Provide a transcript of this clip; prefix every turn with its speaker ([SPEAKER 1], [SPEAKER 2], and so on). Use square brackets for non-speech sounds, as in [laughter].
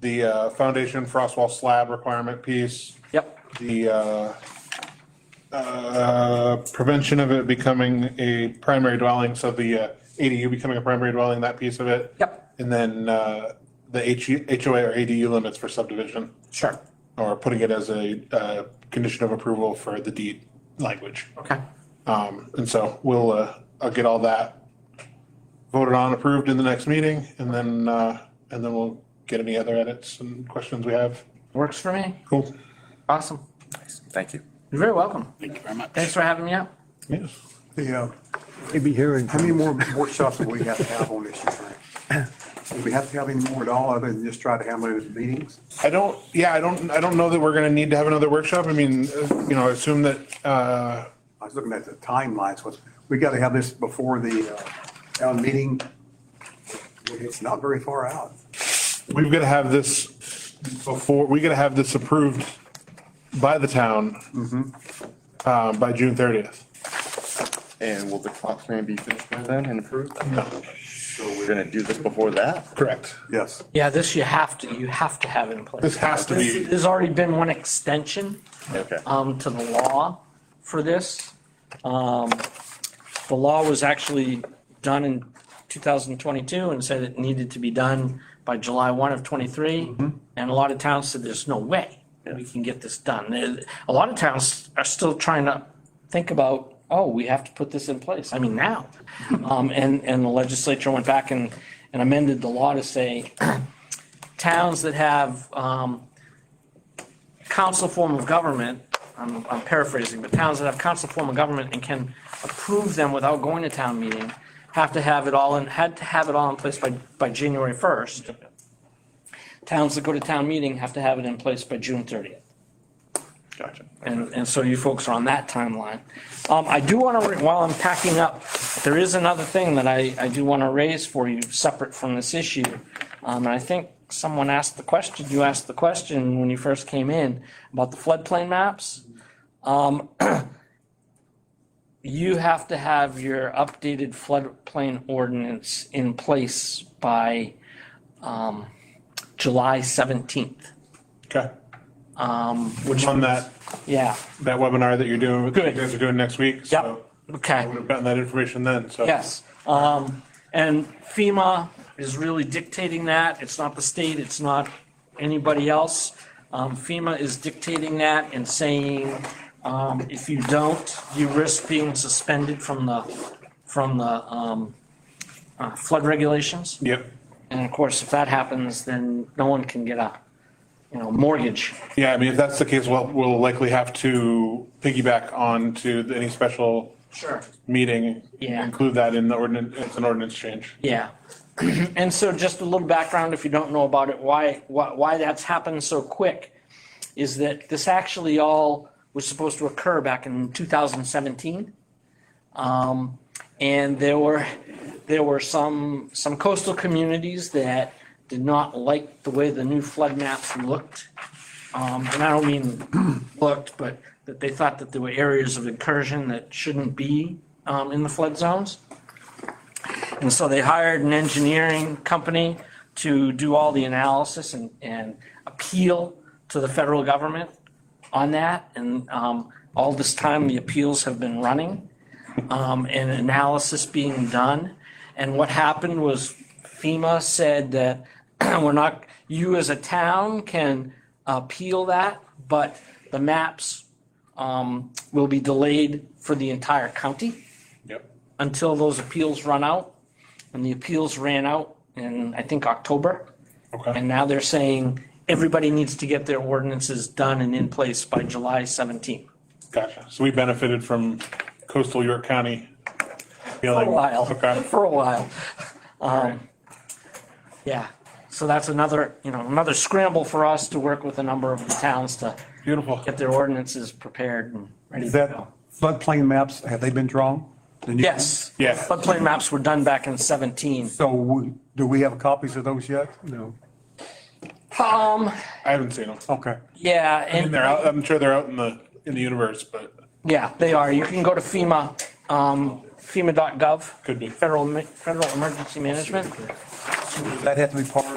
[SPEAKER 1] the uh, foundation frost wall slab requirement piece,
[SPEAKER 2] Yep,
[SPEAKER 1] the uh, uh, prevention of it becoming a primary dwelling, so the uh, ADU becoming a primary dwelling, that piece of it.
[SPEAKER 2] Yep.
[SPEAKER 1] And
[SPEAKER 2] And
[SPEAKER 1] then uh, the H- HOA or ADU limits for subdivision,
[SPEAKER 2] Sure.
[SPEAKER 1] or putting it as a uh, condition of approval for the deed language.
[SPEAKER 2] Okay.
[SPEAKER 1] Um, and so we'll, uh, I'll get all that voted on, approved in the next meeting, and then, uh, and then we'll get any other edits and questions we have.
[SPEAKER 2] Works for me.
[SPEAKER 1] Cool.
[SPEAKER 2] Awesome.
[SPEAKER 3] Thank you.
[SPEAKER 2] You're very welcome.
[SPEAKER 3] Thank you very much.
[SPEAKER 2] Thanks for having me out.
[SPEAKER 1] Yes.
[SPEAKER 4] The, uh,
[SPEAKER 5] Maybe here in.
[SPEAKER 4] how many more workshops will we have to have on this, you think? Do we have to have any more at all, other than just try to handle it at meetings?
[SPEAKER 1] I don't, yeah, I don't, I don't know that we're gonna need to have another workshop. I mean, uh, you know, I assume that, uh,
[SPEAKER 4] I was looking at the timelines, what's, we got to have this before the uh, town meeting. It's not very far out.
[SPEAKER 1] we've gotta have this before, we gotta have this approved by the town, uh, by June thirtieth.
[SPEAKER 3] And will the clock plan be finished by then and approved?
[SPEAKER 1] No.
[SPEAKER 3] So we're gonna do this before that?
[SPEAKER 1] Correct.
[SPEAKER 4] Yes.
[SPEAKER 2] Yeah, this you have to, you have to have in place.
[SPEAKER 1] This has to be-
[SPEAKER 2] This- There's already been one extension.
[SPEAKER 3] Okay.
[SPEAKER 2] um, to the law for this. Um, The law was actually done in 2022 and said it needed to be done by July 1 of '23. And a lot of towns said, there's no way we can get this done. There- A lot of towns are still trying to think about, oh, we have to put this in place. I mean, now. Um, And, and the legislature went back and and amended the law to say [clears throat] towns that have um, council form of government, I'm I'm paraphrasing, but towns that have council form of government and can approve them without going to town meeting have to have it all in, had to have it all in place by, by January 1st. Towns that go to town meeting have to have it in place by June 30th.
[SPEAKER 3] Gotcha.
[SPEAKER 2] And, and so you folks are on that timeline. Um, I do want to, while I'm packing up, there is another thing that I, I do want to raise for you, separate from this issue. Um, and I think someone asked the question, you asked the question when you first came in about the floodplain maps. Um, [clears throat] you have to have your updated floodplain ordinance in place by, um, July seventeenth,
[SPEAKER 1] Okay.
[SPEAKER 2] um, which,
[SPEAKER 1] On that,
[SPEAKER 2] yeah,
[SPEAKER 1] that webinar that you're doing, you
[SPEAKER 2] Good.
[SPEAKER 1] guys are doing next week.
[SPEAKER 2] yep,
[SPEAKER 1] so
[SPEAKER 2] okay.
[SPEAKER 1] I would have gotten that information then, so.
[SPEAKER 2] Yes, um, and FEMA is really dictating that. It's not the state, it's not anybody else. Um, FEMA is dictating that and saying, um, if you don't, you risk being suspended from the, from the, um, uh, flood regulations.
[SPEAKER 1] Yep.
[SPEAKER 2] And of course, if that happens, then no one can get a, you know, mortgage.
[SPEAKER 1] Yeah, I mean, if that's the case, we'll, we'll likely have to piggyback on to any special
[SPEAKER 2] Sure.
[SPEAKER 1] meeting.
[SPEAKER 2] Yeah.
[SPEAKER 1] Include that in the ordinance, it's an ordinance change.
[SPEAKER 2] Yeah. [clears throat] And so just a little background, if you don't know about it, why, why, why that's happened so quick is that this actually all was supposed to occur back in 2017. Um, and there were, there were some, some coastal communities that did not like the way the new flood maps looked. Um, and I don't mean [clears throat] looked, but that they thought that there were areas of incursion that shouldn't be, um, in the flood zones. And so they hired an engineering company to do all the analysis and, and appeal to the federal government on that. And um, all this time, the appeals have been running um, and analysis being done. And what happened was FEMA said that [clears throat] we're not, you as a town can appeal that, but the maps um, will be delayed for the entire county
[SPEAKER 1] Yep.
[SPEAKER 2] until those appeals run out. And the appeals ran out in, I think, October.
[SPEAKER 1] Okay.
[SPEAKER 2] And now they're saying everybody needs to get their ordinances done and in place by July 17th.
[SPEAKER 1] Gotcha. So we benefited from coastal York County.
[SPEAKER 2] For a
[SPEAKER 1] feeling.
[SPEAKER 2] while,
[SPEAKER 1] Okay.
[SPEAKER 2] [laughs] for a while. Um, Yeah, so that's another, you know, another scramble for us to work with a number of the towns to
[SPEAKER 1] Beautiful.
[SPEAKER 2] get their ordinances prepared and ready to
[SPEAKER 4] Is
[SPEAKER 2] go.
[SPEAKER 4] that floodplain maps, have they been drawn? The new-
[SPEAKER 2] Yes.
[SPEAKER 1] Yeah.
[SPEAKER 2] Floodplain maps were done back in 17.
[SPEAKER 4] So we- do we have copies of those yet? No.
[SPEAKER 2] Um,
[SPEAKER 1] I haven't seen them.
[SPEAKER 2] Oh.
[SPEAKER 4] Okay.
[SPEAKER 2] yeah, and.
[SPEAKER 1] And they're out, I'm sure they're out in the, in the universe, but
[SPEAKER 2] Yeah, they are. You can go to FEMA, um, FEMA.gov.
[SPEAKER 1] Could be.
[SPEAKER 2] Federal, Ma- Federal Emergency Management.
[SPEAKER 4] Does that have to be part uh,